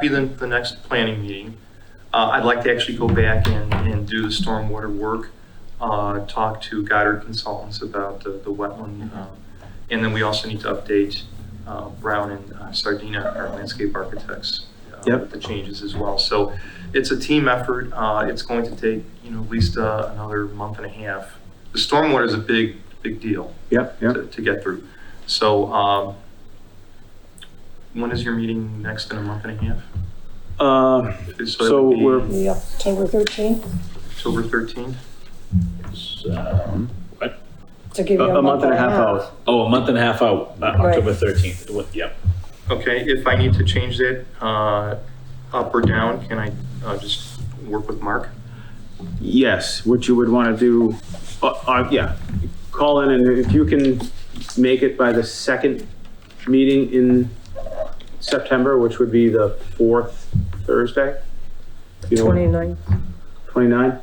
be the, the next planning meeting. Uh, I'd like to actually go back and, and do the stormwater work, uh, talk to Goddard Consultants about the, the Mm-hmm. wetland. um, And then we also need to update, uh, Brown and uh, Sardina, our landscape architects. uh, Yep. with The changes as well. So it's a team effort. Uh, it's going to take, you know, at least, uh, another month and a half. The stormwater is a big, big deal Yep, yep. to, to get through. So, um, when is your meeting next in a month and a half? Uh, that So would be we're- Yeah, October 13th, October thirteenth? So, what? to give a you a month and a half out. Oh, a month and a half out, uh, October 13th. It wa- Yep. Okay, if I need to change that, uh, up or down, can I, uh, just work with Mark? Yes, what you would want to do, uh, uh, yeah, call in and if you can make it by the second meeting in September, which would be the fourth Thursday. you know, 29th. 29?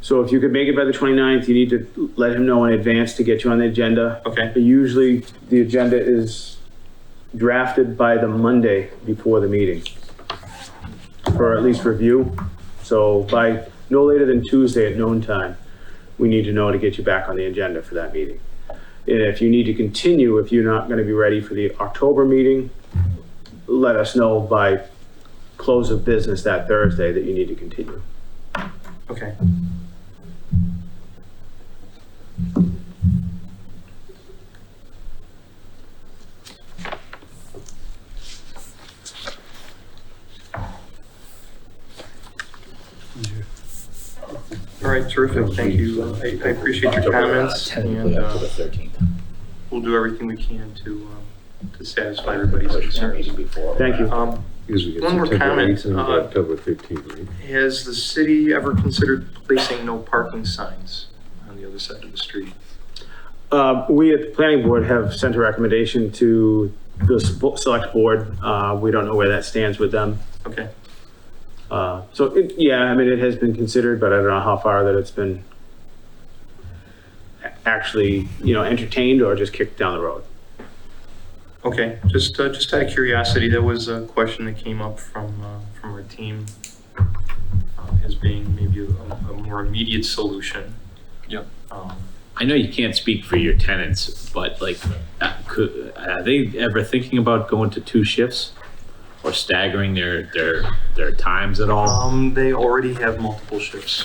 So if you could make it by the 29th, you need to let him know in advance to get you on the agenda. Okay, Usually, the agenda is drafted by the Monday before the meeting, or at least review. So by no later than Tuesday at noon time, we need to know to get you back on the agenda for that meeting. And if you need to continue, if you're not going to be ready for the October meeting, let us know by close of business that Thursday that you need to continue. okay. All right, terrific, thank you. I, I appreciate your October, uh, comments Tentatively and, uh, October 13th. we'll do everything we can to, um, to satisfy everybody's Push that concerns. meeting before. Thank you. Um, Because we get One more September comment, 8th and we get uh, October 15th, right? Has the city ever considered placing no parking signs on the other side of the street? Uh, We at the planning board have sent a recommendation to the s- select board. Uh, We don't know where that stands with them. Okay, Uh, So, it- yeah, I mean, it has been considered, but I don't know how far that it's been a- actually, you know, entertained or just kicked down the road. okay, just, uh, just out of curiosity, that was a question that came up from, uh, from our team uh, as being maybe a, a more immediate solution. Yep. Um, I know you can't speak for your tenants, but like, uh, could, are they ever thinking about going to two shifts? Or staggering their, their, their times at all? Um, they already have multiple shifts.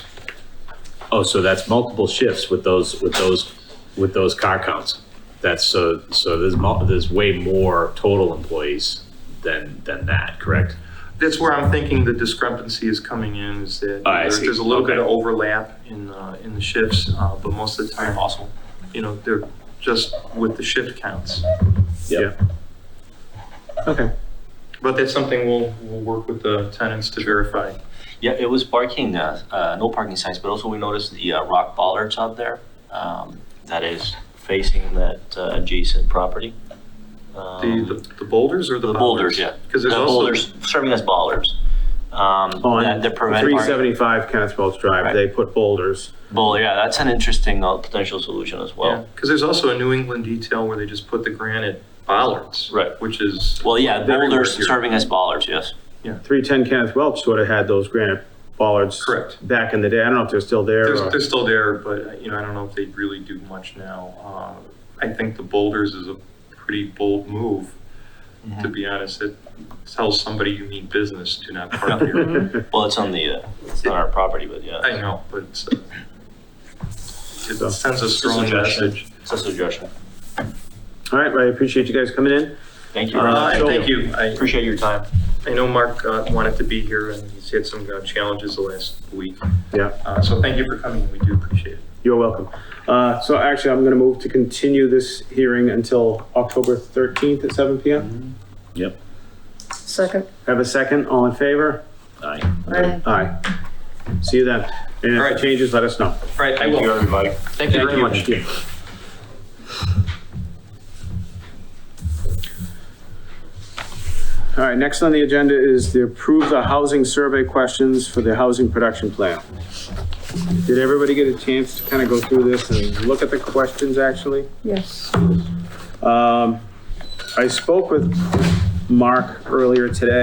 Oh, so that's multiple shifts with those, with those, with those car counts. That's so, so there's mul, there's way more total employees than, than that, correct? That's where I'm thinking the discrepancy is coming in, is that Ah, I there's see. there's a little bit of Okay. overlap in, uh, in the shifts, uh, but most of the time, also, you know, they're just with the shift counts. Yeah. Okay. But that's something we'll, we'll work with the tenants to verify. Yeah, it was parking, uh, uh, no parking signs, but also we noticed the uh, rock bollards out there um, that is facing that uh, adjacent property. The, Um, the the boulders or the The bollards? boulders, yeah. Because there's The also, Oh, boulders, serving as bollards. Um, On that They're preventing. 375 Kenneth Welch Drive, Right. they put boulders. Bowl, yeah, that's an interesting uh, potential solution as well. because there's also a New England detail where they just put the granite bollards. Right. Which is. Well, yeah, everywhere boulders here. serving as bollards, yes. 310 Kenneth Welch sort of had those granite bollards. Correct. Back in the day. I don't know if they're still there. They're, or- they're still there, but, uh, you know, I don't know if they really do much now. Uh, I think the boulders is a pretty bold move, Mm-hmm. to be honest. It tells somebody you mean business, do not park here. Well, it's on the, uh, it's on our property, I but yeah, know, but it's, uh, it sends a strong suggestion. message. it's a suggestion. All right, well, I appreciate you guys coming in. Thank you. Uh, and thank you. I, Appreciate your time. I know Mark uh, wanted to be here and he's had some uh, challenges the last week. Yeah. Uh, So thank you for coming. We do appreciate it. You're welcome. Uh, So actually, I'm going to move to continue this hearing until October 13th at 7 Mm-hmm. PM. Yep. Second. Have a second, all in favor? Aye. Aye. Aye. See you then. And if All right. it changes, let us know. Right, I Thank you, will. everybody. Thank you very much. All right, next on the agenda is to approve the housing survey questions for the housing production plan. Did everybody get a chance to kind of go through this and look at the questions, actually? Yes. Um, I spoke with Mark earlier today.